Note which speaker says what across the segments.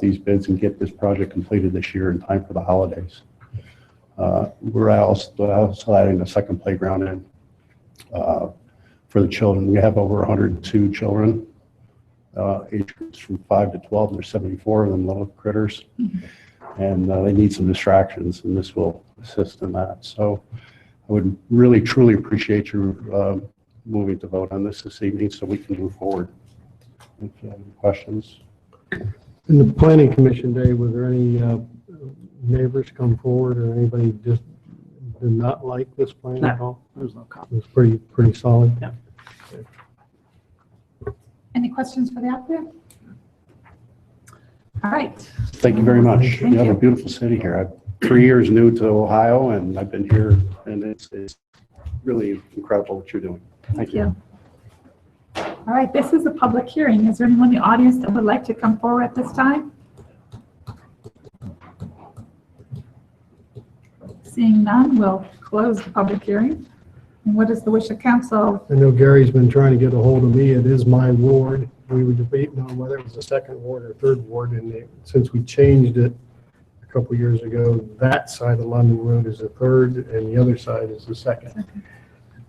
Speaker 1: these bids and get this project completed this year in time for the holidays. Uh, We're also also adding a second playground in uh, for the children. We have over 102 children, uh, age groups from 5 to 12, and there's 74 of them little critters. And uh, they need some distractions, and this will assist in that. So I would really truly appreciate your um, moving to vote on this this evening so we can move forward. If you have any questions.
Speaker 2: In the planning commission day, was there any uh, neighbors come forward or anybody just did not like this plan at all?
Speaker 3: There's no comment.
Speaker 2: It was pretty, pretty solid.
Speaker 4: Any questions for the applicant? All right,
Speaker 1: Thank you very much.
Speaker 4: Thank
Speaker 1: You have a
Speaker 4: you.
Speaker 1: beautiful city here. I'm three years new to Ohio, and I've been here, and it's, it's really incredible what you're doing.
Speaker 4: thank you. All right, this is a public hearing. Is there anyone in the audience that would like to come forward at this time? Seeing none, we'll close the public hearing. And what is the wish of council?
Speaker 2: I know Gary's been trying to get a hold of me. It is my ward. We were debating on whether it was the second ward or third ward, and it- since we changed it a couple years ago, that side of London Road is the third, and the other side is the second.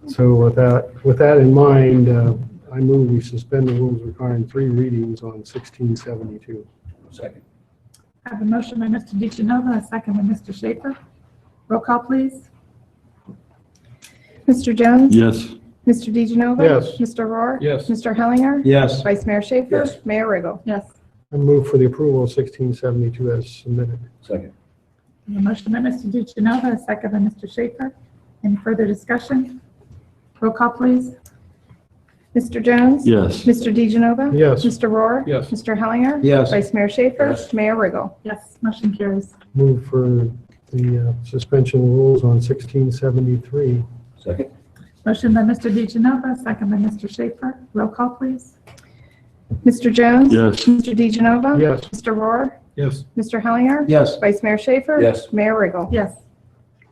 Speaker 2: So with that, with that in mind, uh, I move we suspend the rules requiring three readings on 1672.
Speaker 5: Second.
Speaker 4: I have a motion by Mr. DeGenova, a second by Mr. Schaefer. Roll call, please.
Speaker 6: Mr. Jones?
Speaker 5: Yes.
Speaker 6: Mr. DeGenova?
Speaker 2: Yes.
Speaker 6: Mr. Rohr?
Speaker 5: Yes.
Speaker 6: Mr. Hellinger?
Speaker 5: Yes.
Speaker 6: Vice Mayor Schaefer?
Speaker 5: Yes.
Speaker 6: Mayor Riggle?
Speaker 4: Yes.
Speaker 2: I move for the approval of 1672 as submitted.
Speaker 5: Second.
Speaker 4: I have A motion by Mr. DeGenova, a second by Mr. Schaefer. Any further discussion? Roll call, please.
Speaker 6: Mr. Jones?
Speaker 5: Yes.
Speaker 6: Mr. DeGenova?
Speaker 2: Yes.
Speaker 6: Mr. Rohr?
Speaker 5: Yes.
Speaker 6: Mr. Hellinger?
Speaker 5: Yes.
Speaker 6: Vice Mayor Schaefer?
Speaker 5: Yes.
Speaker 6: Mayor Riggle?
Speaker 4: Yes, motion carries.
Speaker 2: Move for the uh, suspension rules on 1673.
Speaker 5: Second.
Speaker 4: Motion by Mr. DeGenova, second by Mr. Schaefer. Roll call, please.
Speaker 6: Mr. Jones?
Speaker 5: Yes.
Speaker 6: Mr. DeGenova?
Speaker 2: Yes.
Speaker 6: Mr. Rohr?
Speaker 2: Yes.
Speaker 6: Mr. Hellinger?
Speaker 5: Yes.
Speaker 6: Vice Mayor Schaefer?
Speaker 5: Yes.
Speaker 6: Mayor Riggle?
Speaker 4: Yes.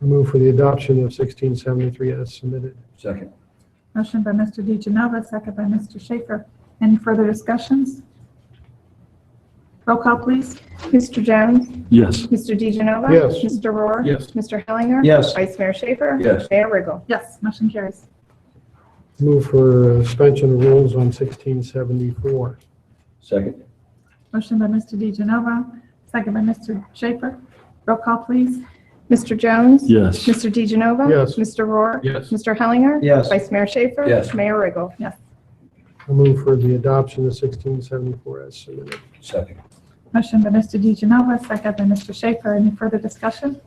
Speaker 2: Move for the adoption of 1673 as submitted.
Speaker 5: Second.
Speaker 4: Motion by Mr. DeGenova, second by Mr. Schaefer. Any further discussions? Roll call, please.
Speaker 6: Mr. Jones?
Speaker 5: Yes.
Speaker 6: Mr. DeGenova?
Speaker 2: Yes.
Speaker 6: Mr. Rohr?
Speaker 5: Yes.
Speaker 6: Mr. Hellinger?
Speaker 5: Yes.
Speaker 6: Vice Mayor Schaefer?
Speaker 5: Yes.
Speaker 6: Mayor Riggle?
Speaker 4: Yes, motion carries.
Speaker 2: Move for uh, suspension of rules on 1674.
Speaker 5: Second.
Speaker 4: Motion by Mr. DeGenova, second by Mr. Schaefer. Roll call, please.
Speaker 6: Mr. Jones?
Speaker 5: Yes.
Speaker 6: Mr. DeGenova?
Speaker 2: Yes.
Speaker 6: Mr. Rohr?
Speaker 5: Yes.
Speaker 6: Mr. Hellinger?
Speaker 5: Yes.
Speaker 6: Vice Mayor Schaefer?
Speaker 5: Yes.
Speaker 6: Mayor Riggle?
Speaker 4: Yes.
Speaker 2: I Move for the adoption of 1674 as submitted.
Speaker 5: Second.
Speaker 4: Motion by Mr. DeGenova, second by Mr. Schaefer. Any further discussion?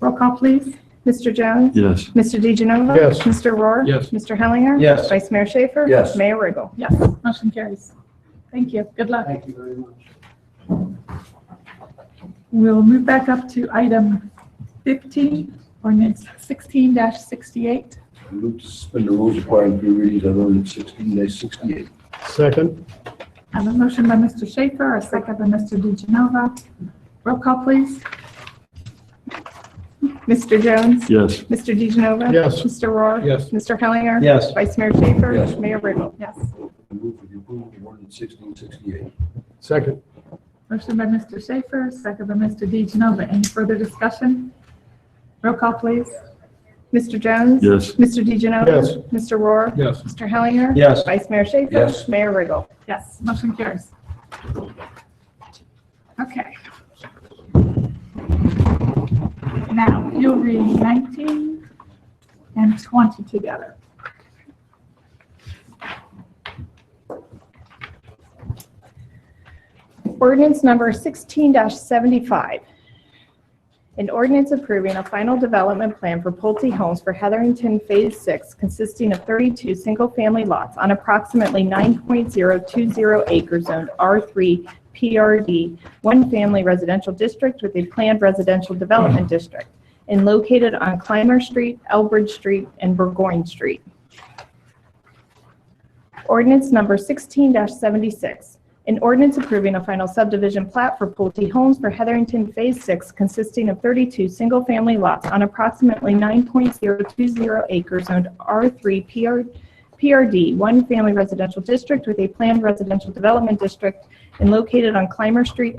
Speaker 4: Roll call, please.
Speaker 6: Mr. Jones?
Speaker 5: Yes.
Speaker 6: Mr. DeGenova?
Speaker 2: Yes.
Speaker 6: Mr. Rohr?
Speaker 5: Yes.
Speaker 6: Mr. Hellinger?
Speaker 5: Yes.
Speaker 6: Vice Mayor Schaefer?
Speaker 5: Yes.
Speaker 6: Mayor Riggle?
Speaker 4: Yes, motion carries. Thank you. Good luck.
Speaker 2: you very much.
Speaker 4: We'll move back up to item 15, ordinance 16-68.
Speaker 5: Move to suspend the rules requiring three readings on ordinance sixteen dash sixty-eight.
Speaker 2: Second?
Speaker 4: I have a motion by Mr. Schaefer, a second by Mr. DeGenova. Roll call, please.
Speaker 6: Mr. Jones?
Speaker 5: Yes.
Speaker 6: Mr. DeGenova?
Speaker 2: Yes.
Speaker 6: Mr. Rohr?
Speaker 5: Yes.
Speaker 6: Mr. Hellinger?
Speaker 5: Yes.
Speaker 6: Vice Mayor Schaefer?
Speaker 5: Yes.
Speaker 6: Mayor Riggle?
Speaker 4: Yes.
Speaker 5: Move for the approval of ordinance sixteen sixty-eight.
Speaker 2: Second?
Speaker 4: Motion by Mr. Schaefer, second by Mr. DeGenova. Any further discussion? Roll call, please.
Speaker 6: Mr. Jones?
Speaker 5: Yes.
Speaker 6: Mr. DeGenova?
Speaker 2: Yes.
Speaker 6: Mr. Rohr?
Speaker 5: Yes.
Speaker 6: Mr. Hellinger?
Speaker 5: Yes.
Speaker 6: Vice Mayor Schaefer?
Speaker 5: Yes.
Speaker 6: Mayor Riggle?
Speaker 4: Yes, motion carries. Okay. Now, you'll read 19 and 20 together.
Speaker 6: Ordinance number 16-75. An ordinance approving a final development plan for Pulte Homes for Heatherington Phase 6 consisting of 32 single-family lots on approximately 9.020 acre zoned R3 PRD, one family residential district with a planned residential development district, and located on Clymer Street, Elbridge Street, and Burgoyne Street. Ordinance number 16-76. An ordinance approving a final subdivision plat for Pulte Homes for Heatherington Phase 6 consisting of 32 single-family lots on approximately 9.020 acres owned R3 PR PRD, one family residential district with a planned residential development district and located on Clymer Street,